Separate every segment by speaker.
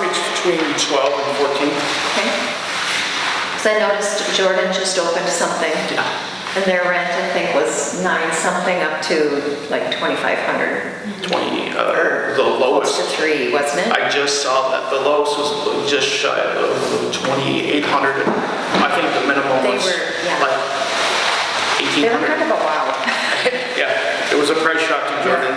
Speaker 1: between 12 and 14.
Speaker 2: Okay. Because I noticed Jordan just opened something.
Speaker 1: Yeah.
Speaker 2: And their rent, I think, was nine something up to like 2,500.
Speaker 1: 20, uh, the
Speaker 3: Oh,
Speaker 1: lowest.
Speaker 2: Close to three, wasn't it?
Speaker 1: I just saw that the lowest was just shy of 2,800. I think the minimum
Speaker 2: They
Speaker 1: was
Speaker 2: were, yeah.
Speaker 1: like
Speaker 2: They were kind
Speaker 1: 1,800.
Speaker 2: of a wow.
Speaker 1: Yeah, it was a price shock to Jordan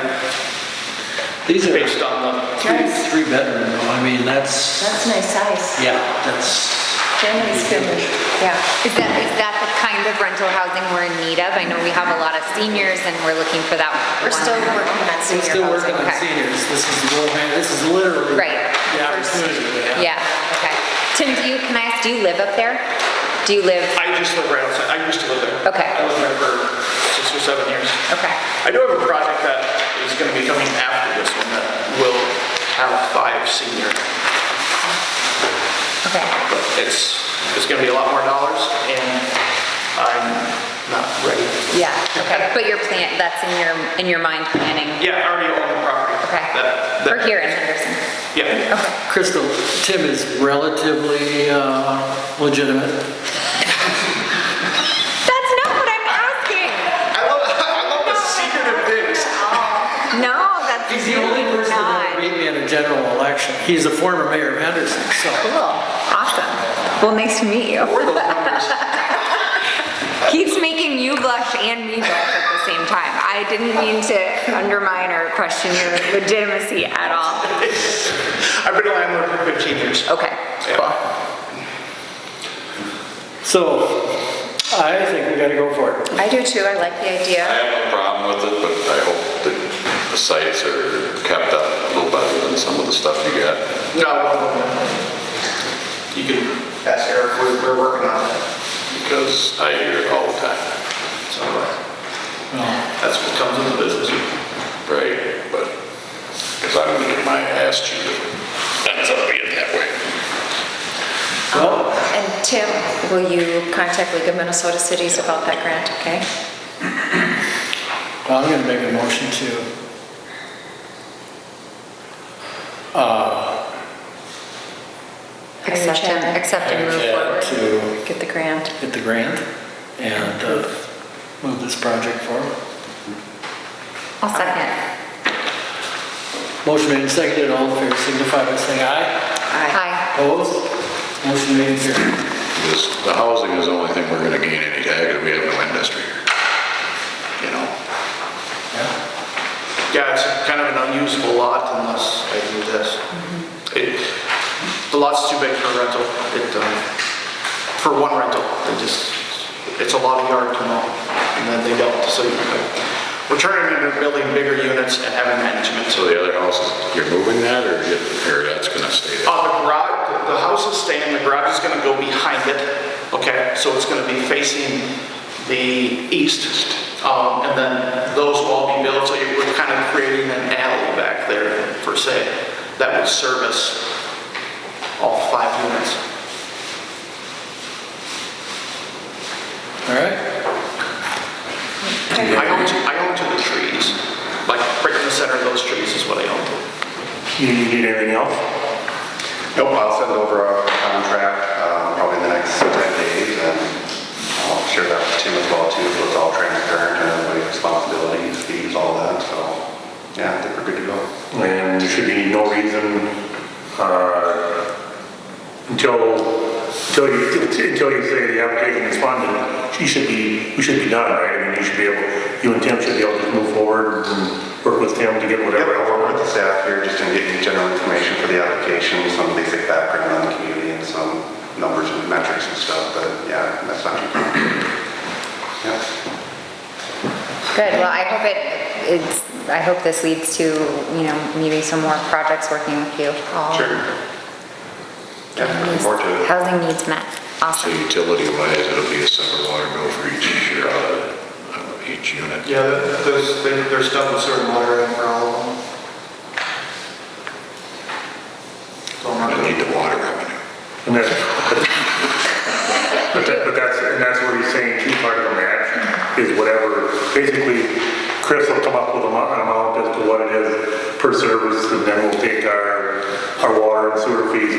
Speaker 3: These are
Speaker 1: based on the,
Speaker 3: three,
Speaker 2: Nice.
Speaker 3: three bedroom though, I mean, that's,
Speaker 2: That's nice size.
Speaker 3: yeah, that's.
Speaker 2: Family's good, yeah.
Speaker 4: Is that, is that the kind of rental housing we're in need of? I know we have a lot of seniors and we're looking for that.
Speaker 2: We're
Speaker 4: one.
Speaker 2: still working on
Speaker 3: We're
Speaker 2: senior
Speaker 3: still working
Speaker 2: housing.
Speaker 3: on
Speaker 4: okay.
Speaker 3: seniors, this is the low hand, this is literally.
Speaker 4: Right.
Speaker 3: The opportunity, yeah.
Speaker 4: Yeah, okay. Tim, do you, can I ask, do you live up there? Do you live,
Speaker 1: I just live right outside, I used to live there.
Speaker 4: Okay.
Speaker 1: I lived there for six or seven years.
Speaker 4: okay.
Speaker 1: I do have a project that is going to be coming after this one that will have five senior,
Speaker 4: Okay.
Speaker 1: but it's, it's going to be a lot more dollars and I'm not ready.
Speaker 4: Yeah, okay. But your plan, that's in your, in your mind planning?
Speaker 1: Yeah, I already own the property. That-
Speaker 4: Okay.
Speaker 1: that-
Speaker 4: We're here in Henderson.
Speaker 1: Yeah.
Speaker 4: Okay.
Speaker 3: Crystal, Tim is relatively uh, legitimate.
Speaker 4: That's not what I'm asking.
Speaker 1: I love, I love the secretive things.
Speaker 4: No, that's
Speaker 3: He's the only person that
Speaker 4: not.
Speaker 3: would beat me in a general election. He's a former mayor of Henderson, so.
Speaker 4: Cool, awesome. Well, nice to meet you.
Speaker 1: We're the lovers.
Speaker 4: He's making you blush and me blush at the same time. I didn't mean to undermine or question your legitimacy at all.
Speaker 1: I've been a landlord for 15 years.
Speaker 4: Okay, cool.
Speaker 3: So I think we gotta go for it.
Speaker 2: I do too, I like the
Speaker 5: I
Speaker 2: idea.
Speaker 5: have no problem with it, but I hope that the sites are kept up a little better than some of the stuff you got.
Speaker 1: No. You can ask Eric, we're, we're working on it.
Speaker 5: Because I hear it all the time,
Speaker 1: So, uh, That's what comes in the business.
Speaker 5: right? But, because I'm gonna get my ass chewed if it ends up being that way.
Speaker 3: Well,
Speaker 2: And Tim, will you contact League of Minnesota Cities about that grant, okay?
Speaker 3: I'm gonna make a motion to
Speaker 4: Accept and, accept and move
Speaker 3: Yeah,
Speaker 4: forward.
Speaker 3: uh, to
Speaker 2: Get the grant.
Speaker 3: get the grant and uh, move this project forward.
Speaker 4: I'll second.
Speaker 3: Motion made and seconded, all in favor signify by saying aye.
Speaker 4: Hi.
Speaker 3: Opposed? Motion made and carried.
Speaker 5: This, the housing is the only thing we're gonna gain any tag, we have no industry here. You know?
Speaker 3: Yeah.
Speaker 1: Yeah, it's kind of an unusable lot unless I do this. It, the lot's too big for rental. It, um, for one rental, they just, it's a lot of yard to mow. And then they don't, so you- we're turning into building bigger units and having management.
Speaker 5: So the other house, is you're moving that or you're, or that's gonna stay there?
Speaker 1: Uh, the garage, the house is staying, the garage is gonna go behind it, okay? So it's gonna be facing the east, um, and then those will all be built, so you- we're kind of creating an alley back there, per se, that would service all five units.
Speaker 3: All right.
Speaker 1: I own to, I own to the trees, like right in the center of those trees is what I own to.
Speaker 6: You you need anything else?
Speaker 7: Nope, I'll send over a contract um, probably in the next 10 days, and I'll share that with Tim as well, too, so it's all transparent, and everybody's responsibilities, fees, all that, so, yeah, I think we're good to go.
Speaker 6: And there should be no reason, uh, until, until you, until you say the application is funded, you should be, we should be done, right? I mean, you should be able, you and Tim should be able to move forward and work with Tim to get
Speaker 7: Yeah,
Speaker 6: whatever.
Speaker 7: I'll work with the staff here, just to get you general information for the application, some basic background on the community, and some numbers and metrics and stuff, but, yeah, that's not too complicated. Yeah.
Speaker 4: Good, well, I hope it, it's, I hope this leads to, you know, maybe some more projects working with you all.
Speaker 7: Sure. Yeah, looking forward to it.
Speaker 4: Housing needs met.
Speaker 5: So
Speaker 4: Awesome.
Speaker 5: utility wise, it'll be a separate water bill for each, year, uh, each unit.
Speaker 1: Yeah, there's, there's stuff with certain water in for all of them. So I'm not
Speaker 5: I
Speaker 1: gonna-
Speaker 5: need the water revenue.
Speaker 6: And that's, but that- but that's, and that's what he's saying, two part of the match is whatever, basically, Chris will come up with a mo- an amount as to what it is per service, and then we'll take our, our water and sewer fees